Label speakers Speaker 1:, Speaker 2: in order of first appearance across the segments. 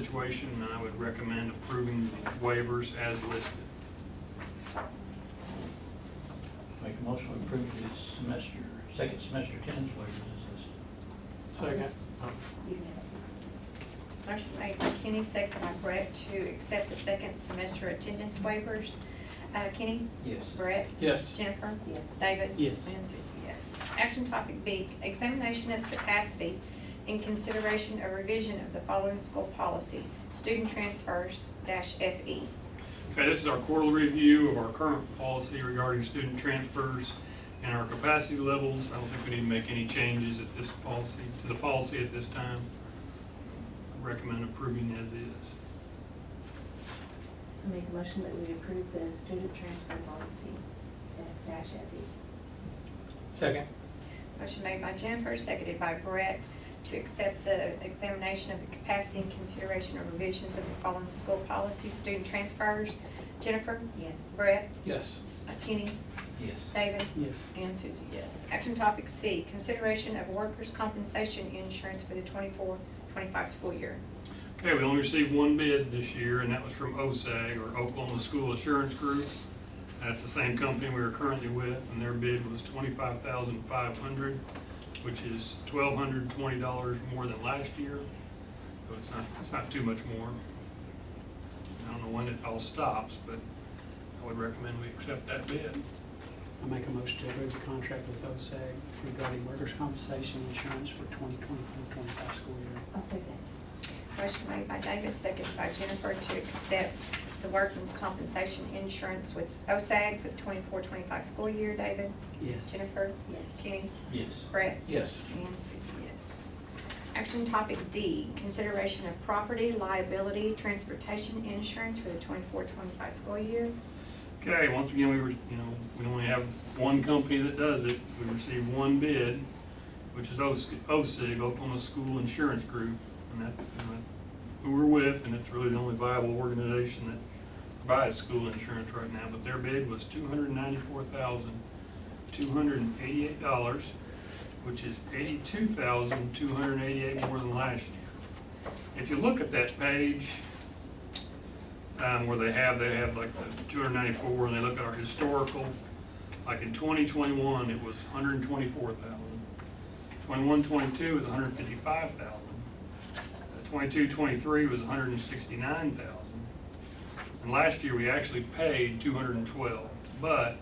Speaker 1: situation, and I would recommend approving the waivers as listed.
Speaker 2: Make a motion to approve this semester, second semester attendance waivers as listed.
Speaker 3: Second.
Speaker 4: Oh.
Speaker 5: Motion made by Kenny, second by Brett to accept the second semester attendance waivers. Uh, Kenny?
Speaker 2: Yes.
Speaker 5: Brett?
Speaker 3: Yes.
Speaker 5: Jennifer? Yes. David?
Speaker 3: Yes.
Speaker 5: And Susie, yes. Action topic B, examination of capacity in consideration of revision of the following school policy, student transfers dash E. FE.
Speaker 1: Okay, this is our quarterly review of our current policy regarding student transfers and our capacity levels. I don't think we need to make any changes at this policy, to the policy at this time. I Recommend approving as is.
Speaker 6: I make a motion that we approve the student transfer policy, F dash F E.
Speaker 3: Second.
Speaker 5: Motion made by Jennifer, seconded by Brett, to accept the examination of the capacity and consideration of revisions of the following school policy, student transfers. Jennifer?
Speaker 6: Yes.
Speaker 5: Brett?
Speaker 3: Yes.
Speaker 5: Kenny?
Speaker 2: Yes.
Speaker 5: David?
Speaker 3: Yes.
Speaker 5: And Susie, yes. Action topic C, consideration of workers' compensation insurance for the 24-25 school year.
Speaker 1: Okay, we only received one bid this year, and that was from OSAG, or Oklahoma School Assurance Group. That's the same company we are currently with, and their bid was twenty-five thousand five hundred, which is twelve hundred and twenty dollars more than last year. So it's not, it's not too much more. I don't know when it all stops, but I would recommend we accept that bid.
Speaker 3: I make a motion to approve the contract with OSAG regarding workers' compensation insurance for 2024-25 school year.
Speaker 6: I'll second.
Speaker 5: Motion made by David, seconded by Jennifer to accept the workers' compensation insurance with OSAG for the 24-25 school year. David?
Speaker 3: Yes.
Speaker 5: Jennifer?
Speaker 6: Yes.
Speaker 5: Kenny?
Speaker 2: Yes.
Speaker 5: Brett?
Speaker 3: Yes.
Speaker 5: And Susie, yes. Action topic D, consideration of property liability transportation insurance for the 24-25 school year.
Speaker 1: Okay, once again, we were, you know, we only have one company that does it. We received one bid, which is OS- OSIG, Oklahoma School Insurance Group. And that's, you know, that's who we're with, and it's really the only viable organization that provides school insurance right now. But their bid was two hundred ninety-four thousand, two hundred and eighty-eight dollars, which is eighty-two thousand, two hundred and eighty-eight more than last year. If you look at that page, um, where they have, they have like the two hundred ninety-four, and they look at our historical, like in twenty twenty-one, it was 124,000. hundred and twenty-four thousand. Twenty-one, twenty-two is 155,000. hundred and fifty-five thousand. Twenty-two, twenty-three was 169,000. hundred and sixty-nine thousand. And last year, we actually paid two hundred and twelve, but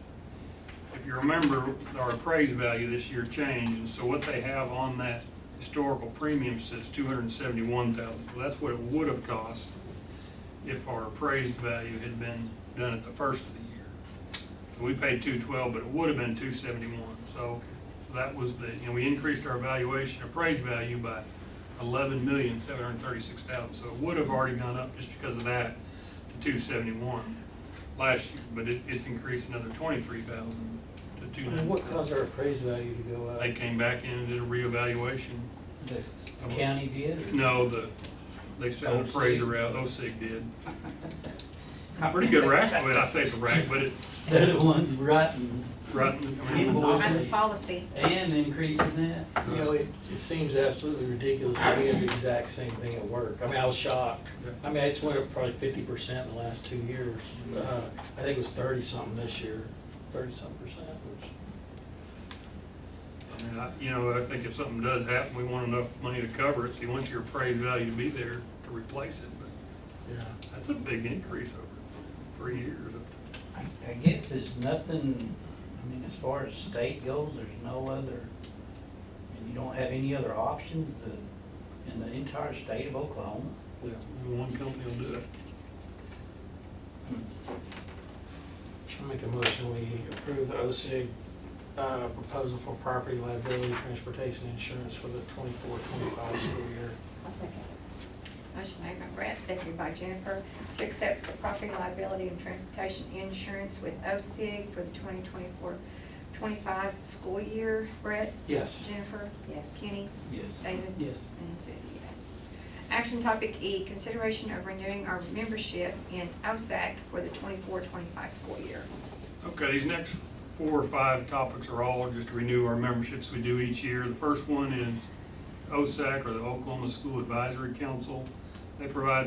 Speaker 1: if you remember, our appraised value this year changed, and so what they have on that historical premium says two hundred and seventy-one thousand. Well, that's what it would have cost if our appraised value had been done at the first of the year. So we paid two twelve, but it would have been two seventy-one, so that was the, you know, we increased our valuation, appraised value by eleven million, seven hundred and thirty-six thousand, so it would have already gone up just because of that to two seventy-one last year, but it, it's increased another twenty-three thousand to two
Speaker 4: And what
Speaker 1: ninety.
Speaker 4: caused our appraised value to go up?
Speaker 1: They came back in and did a reevaluation,
Speaker 2: The county did? or-
Speaker 1: no, the, they sent an
Speaker 2: OSIG.
Speaker 1: appraiser out, OSIG did. Pretty good rack, I mean, I say it's a rack, but it,
Speaker 2: They're the ones writing
Speaker 1: Right, I mean,
Speaker 2: Invoice.
Speaker 5: Have the policy.
Speaker 2: and increasing that.
Speaker 4: You know, it, it seems absolutely ridiculous. that We had the exact same thing at work. I mean, I was shocked. I mean, it's went up probably fifty percent in the last two years. Uh, I think it was thirty something this year, thirty something percent, which.
Speaker 1: I mean, I, you know, I think if something does happen, we want enough money to cover it, so you want your appraised value to be there to replace it, but
Speaker 4: Yeah.
Speaker 1: that's a big increase over three years.
Speaker 2: I, I guess there's nothing, I mean, as far as state goes, there's no other, and you don't have any other options to- in the entire state of Oklahoma.
Speaker 1: Only One company will do it.
Speaker 4: I make a motion, we approve the OSIG, uh, proposal for property liability transportation insurance for the twenty-four, twenty-five school year.
Speaker 6: I'll second.
Speaker 5: Motion made by Brett, seconded by Jennifer, to accept the property liability and transportation insurance with OSIG for the 2024-25 school year. Brett?
Speaker 4: Yes.
Speaker 5: Jennifer?
Speaker 6: Yes.
Speaker 5: Kenny?
Speaker 2: Yes.
Speaker 5: David?
Speaker 3: Yes.
Speaker 5: And Susie, yes. Action topic E, consideration of renewing our membership in OSAC for the 24-25 school year.
Speaker 1: Okay, these next four or five topics are all just to renew our memberships we do each year. The first one is OSAC, or the Oklahoma School Advisory Council. They provide